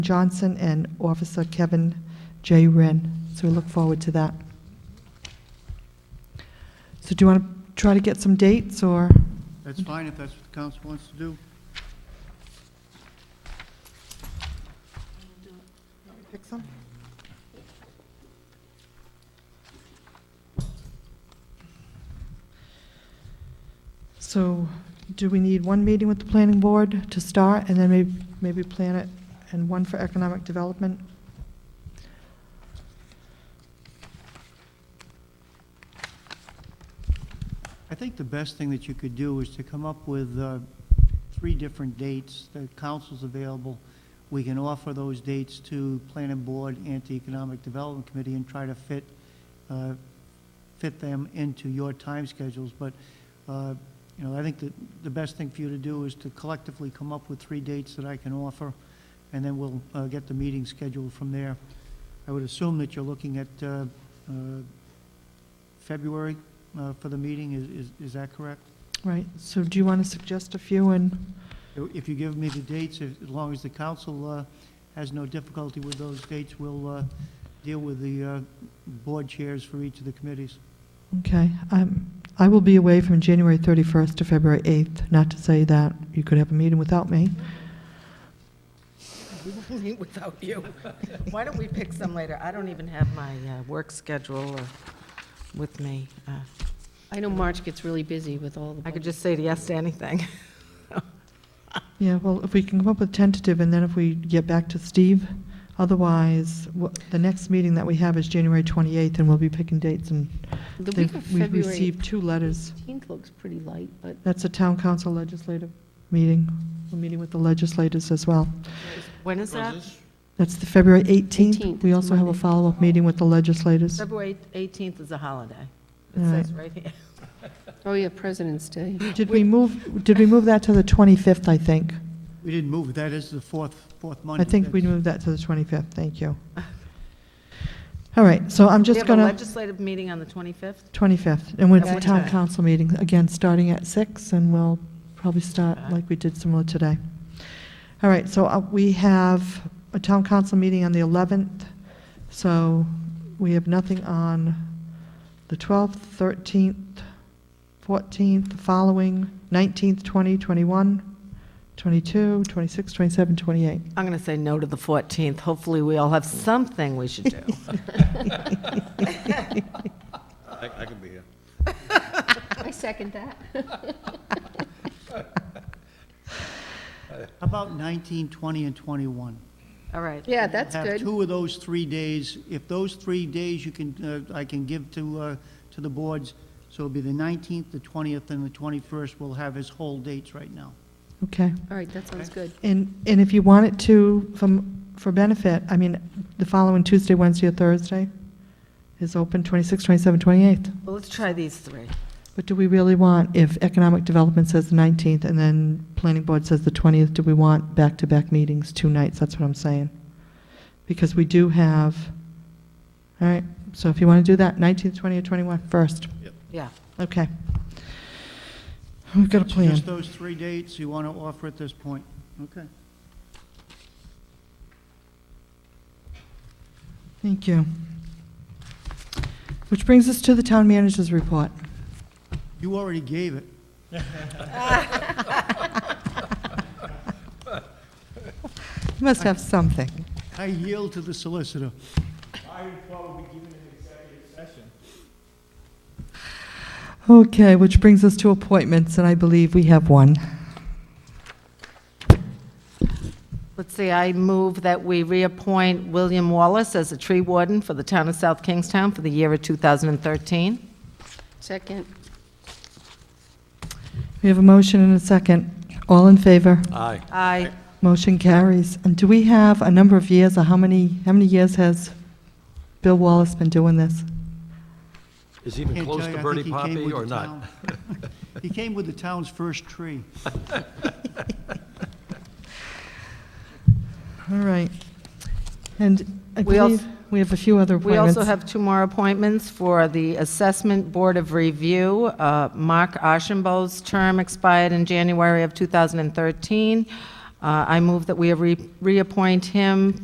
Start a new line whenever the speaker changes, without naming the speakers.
Johnson and Officer Kevin J. Wren. So we look forward to that. So do you want to try to get some dates, or?
That's fine if that's what the council wants to do.
Pick some? So do we need one meeting with the planning board to start, and then maybe, maybe plan it, and one for economic development?
I think the best thing that you could do is to come up with uh, three different dates. The council's available. We can offer those dates to Planning Board and to Economic Development Committee and try to fit, uh, fit them into your time schedules. But, uh, you know, I think that the best thing for you to do is to collectively come up with three dates that I can offer, and then we'll uh, get the meeting scheduled from there. I would assume that you're looking at uh, uh, February uh, for the meeting, is, is is that correct?
Right, so do you want to suggest a few, and,
If you give me the dates, if- as long as the council uh, has no difficulty with those dates, we'll uh, deal with the uh, board chairs for each of the committees.
okay, I'm, I will be away from January 31st to February 8th, not to say that you could have a meeting without me.
We will meet without you. Why don't we pick some later? I don't even have my uh, work schedule uh, with me. Uh,
I know March gets really busy with all the.
I could just say yes to anything.
Yeah, well, if we can come up with tentative, and then if we get back to Steve, otherwise, wha- the next meeting that we have is January 28th, and we'll be picking dates, and
The week of
they've- we've
February
received two letters.
18th looks pretty light, but
That's a town council legislative meeting, we're meeting with the legislators as well.
When is that?
That's the February 18th.
18th,
We
it's
also have a
Monday.
follow-up meeting with the legislators.
February 18th is a holiday. It
All right.
says right here.
oh yeah, President's Day.
Did we move, did we move that to the 25th, I think?
We didn't move, it. that is the fourth, fourth Monday.
I think we
That's-
moved that to the 25th, thank you. All right, so I'm
We
just
have a
gonna,
legislative meeting on the 25th?
25th, and it's
At
a
what
town
time?
council meeting, again, starting at 6, and we'll probably start
Okay.
like we did similar today. All right, so uh, we have a town council meeting on the 11th, so we have nothing on the 12th, 13th, 14th, the following, 19th, 20, 21, 22, 26, 27, 28.
I'm going to say no to the 14th. Hopefully, we all have something we should do.
I, I can be here.
I second that.
How about 19, 20, and 21?
All right.
Yeah, that's
Have
good.
two of those three days. If those three days you can, uh, I can give to, uh, to the boards, so it'll be the 19th, the 20th, and the 21st. We'll have his whole dates right now.
Okay.
All right, that sounds good.
And, and if you want it to, from, for benefit, I mean, the following Tuesday, Wednesday, or Thursday is open, 26, 27, 28.
Well, let's try these three.
But do we really want, if economic development says the 19th and then planning board says the 20th, do we want back-to-back meetings, two nights? That's what I'm saying. Because we do have, all right, so if you want to do that, 19th, 20th, 21st, first.
Yeah.
Okay. We've got a
So
plan.
Just those three dates you want to offer at this point? Okay.
Thank you. Which brings us to the town manager's report.
You already gave it.
You must have something.
I yield to the solicitor.
I would probably be given an executive session.
Okay, which brings us to appointments, and I believe we have one.
Let's see, I move that we reappoint William Wallace as a tree warden for the town of South Kingstown for the year of 2013.
Second,
We have a motion and a second. All in favor?
Aye.
Aye.
Motion carries. And do we have a number of years, or how many, how many years has Bill Wallace been doing this?
Is he even
Can't
close
tell you,
to
I
Bernie
think he came
Poppy
with
or
the
not?
town- He came with the town's first tree.
All right. And I
We als-
believe we have a few other
We
appointments.
also have two more appointments for the Assessment Board of Review. Uh, Mark Ashenbo's term expired in January of 2013. Uh, I move that we re- reappoint him